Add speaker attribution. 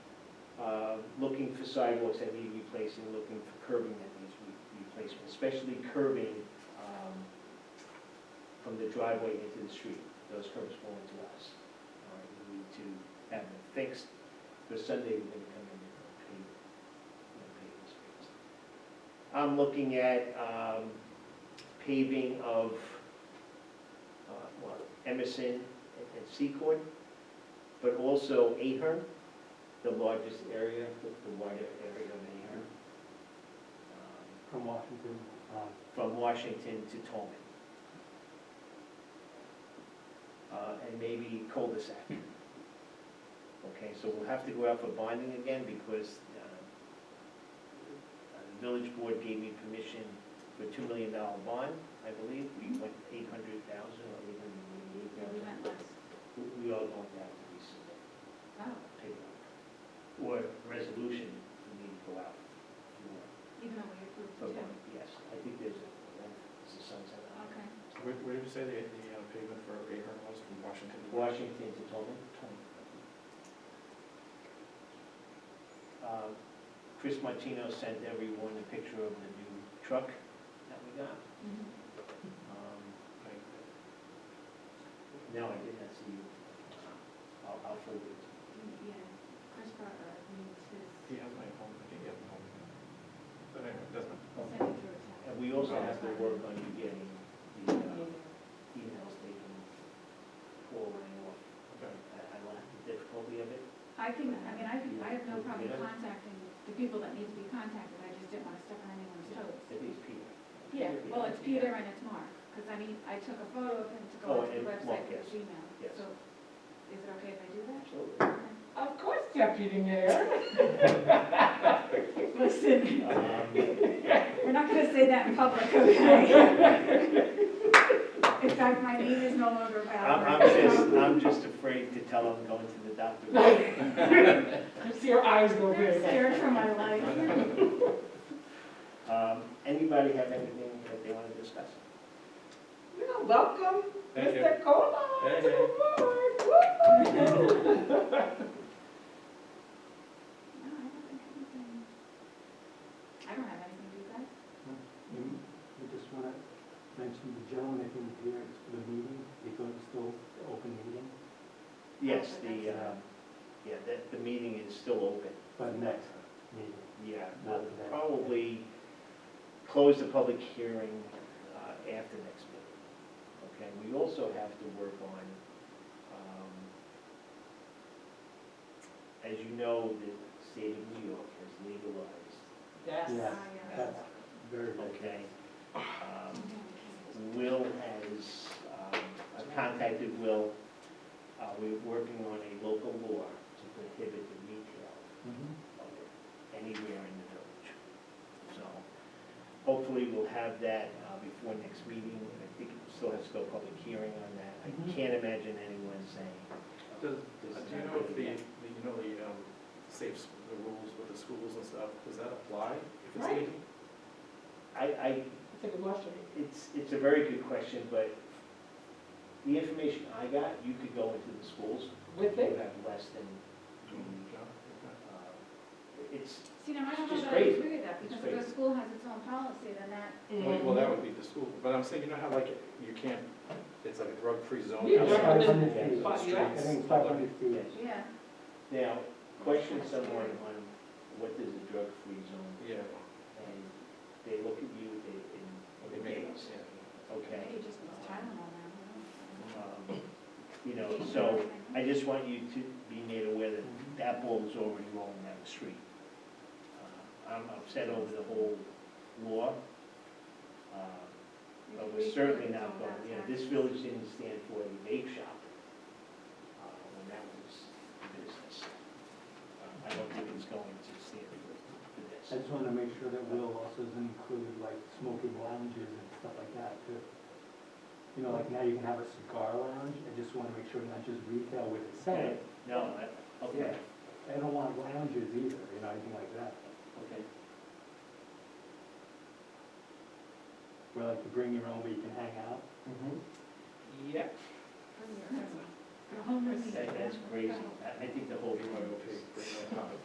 Speaker 1: uh, looking for sidewalks that need replacing, looking for curbing that needs re- replacement, especially curbing um, from the driveway into the street. Those curbs belong to us. All right, We need to have them fixed. For Sunday, we're gonna come in and pave, you know, pave the streets. I'm looking at um, paving of, uh, well, Emerson and and Secord, but also Ahern the largest area, the the wider area of Ahern, um,
Speaker 2: From Washington,
Speaker 3: um,
Speaker 2: uh,
Speaker 1: from Washington to Tolman. Uh, And maybe cul-de-sac. Okay, so we'll have to go out for bonding again because uh, uh, the village board gave me permission for a $2 million bond, I believe. We went 800,000 or 888,000. We- We are going down to these
Speaker 4: oh,
Speaker 1: paperwork, or resolution we need to go out for,
Speaker 4: Even though we approved
Speaker 1: for
Speaker 4: the two.
Speaker 1: one, yes, I think there's a, there's a sunset on it.
Speaker 4: Okay.
Speaker 3: Where, where did you say the, the uh, pavement for Ahern was from Washington?
Speaker 1: Washington to Tolman. Uh, Chris Martino sent everyone a picture of the new truck that we got.
Speaker 4: Mm-hmm.
Speaker 1: Um,
Speaker 3: Like,
Speaker 1: No, I did not see you. Uh, I'll, I'll forward it.
Speaker 4: Yeah, Chris Barber needs
Speaker 3: He
Speaker 4: his
Speaker 3: has my home, I think he has my home. But anyway, it doesn't,
Speaker 1: Oh.
Speaker 4: signature
Speaker 1: And
Speaker 4: attack.
Speaker 1: we also have to work on you getting the uh, emails taken forwarding off.
Speaker 3: okay.
Speaker 1: I, I lack the difficulty of it.
Speaker 4: I can, I mean, I can, I have no problem
Speaker 1: Yeah.
Speaker 4: contacting the people that need to be contacted, I just didn't want to step on anyone's toes.
Speaker 1: At least Peter.
Speaker 4: Yeah, well, it's Peter and it's Mark, because I mean, I took a photo of him to
Speaker 1: Oh,
Speaker 4: go onto
Speaker 1: and
Speaker 4: the
Speaker 1: Mark,
Speaker 4: website for
Speaker 1: yes.
Speaker 4: his email.
Speaker 1: Yes.
Speaker 4: So is it okay if I do that?
Speaker 1: Absolutely.
Speaker 4: Of course, Deputy Mayor. Listen,
Speaker 1: Um,
Speaker 4: we're not gonna say that in public, okay? In fact, my name is no longer
Speaker 1: I'm,
Speaker 4: valid.
Speaker 1: I'm just, I'm just afraid to tell him going to the doctor.
Speaker 2: I see your eyes go
Speaker 4: I'm
Speaker 2: big.
Speaker 4: scared for my life.
Speaker 1: Um, anybody have anything that they want to discuss?
Speaker 2: You're welcome,
Speaker 3: Thank you.
Speaker 2: Cola,
Speaker 3: Thank you.
Speaker 2: board.
Speaker 4: No, I don't think anything. I don't have anything, do you guys?
Speaker 2: I just want to mention the gentleman that came here to the meeting, because it's still the open meeting,
Speaker 1: Yes, the, um, yeah, the, the meeting is still open.
Speaker 2: but next meeting.
Speaker 1: Yeah, we'll probably close the public hearing uh, after next meeting. Okay, we also have to work on, um, as you know, the state of New York has legalized,
Speaker 2: Yeah,
Speaker 4: Ah, yeah.
Speaker 2: that's very good.
Speaker 1: okay? Um,
Speaker 4: Okay.
Speaker 1: Will has, um, I've contacted Will, uh, we're working on a local law to prohibit the retail
Speaker 3: Mm-hmm.
Speaker 2: Mhm.
Speaker 1: of it anywhere in the village. So hopefully we'll have that uh, before next meeting, and I think we still have to go public hearing on that. I
Speaker 2: Mhm.
Speaker 1: can't imagine anyone saying.
Speaker 3: Does,
Speaker 1: this is
Speaker 3: do you
Speaker 1: not
Speaker 3: know if
Speaker 1: good
Speaker 3: the,
Speaker 1: enough.
Speaker 3: the- you know, the, um, safe, s- the rules with the schools and stuff, does that apply? if it's
Speaker 2: Right.
Speaker 3: legal?
Speaker 1: I, I,
Speaker 2: That's a good question.
Speaker 1: it's, it's a very good question, but the information I got, you could go into the schools,
Speaker 2: With
Speaker 1: you have less than,
Speaker 3: No? Mm, Okay.
Speaker 1: um, it's,
Speaker 4: See, now I don't
Speaker 1: It's
Speaker 4: know
Speaker 1: just
Speaker 4: that I agree
Speaker 1: crazy.
Speaker 4: with that,
Speaker 1: It's
Speaker 4: because if
Speaker 1: crazy.
Speaker 4: a school has its own policy, then that,
Speaker 2: Mm-hmm.
Speaker 3: Well, well, that would be the school, but I'm saying, you know how like, you can't, it's like a drug-free zone.
Speaker 2: Yeah,
Speaker 3: outside
Speaker 2: yeah.
Speaker 3: of the
Speaker 2: Yeah. I
Speaker 3: streets.
Speaker 2: think five hundred feet.
Speaker 1: yes.
Speaker 4: yeah.
Speaker 1: Now, question someone on what is a drug-free zone,
Speaker 3: Yeah,
Speaker 1: and they look at you, they,
Speaker 3: they
Speaker 1: and they
Speaker 3: make it,
Speaker 1: gaze,
Speaker 3: yeah.
Speaker 1: okay?
Speaker 4: Maybe just it's Tylenol now.
Speaker 1: Um, You know, so I just want you to be made aware that that ball is already rolling down the street. Uh, I'm upset over the whole law, uh, but we're certainly not going, you know, this village didn't stand for a vape shop uh, when that was a business. Uh, I don't think it's going to stand for for this.
Speaker 2: I just wanted to make sure that Will also doesn't include like smoking lounges and stuff like that too. You know, like now you can have a cigar lounge, I just want to make sure not just retail with it
Speaker 1: Okay,
Speaker 2: said.
Speaker 1: no, I- okay,
Speaker 2: I don't want lounges either, you know, anything like that,
Speaker 1: okay.
Speaker 2: where like you bring your own, where you can hang out.
Speaker 3: Yeah.
Speaker 4: Your home
Speaker 1: That- That's crazy. I I think the whole.
Speaker 3: BYOP, bring that up.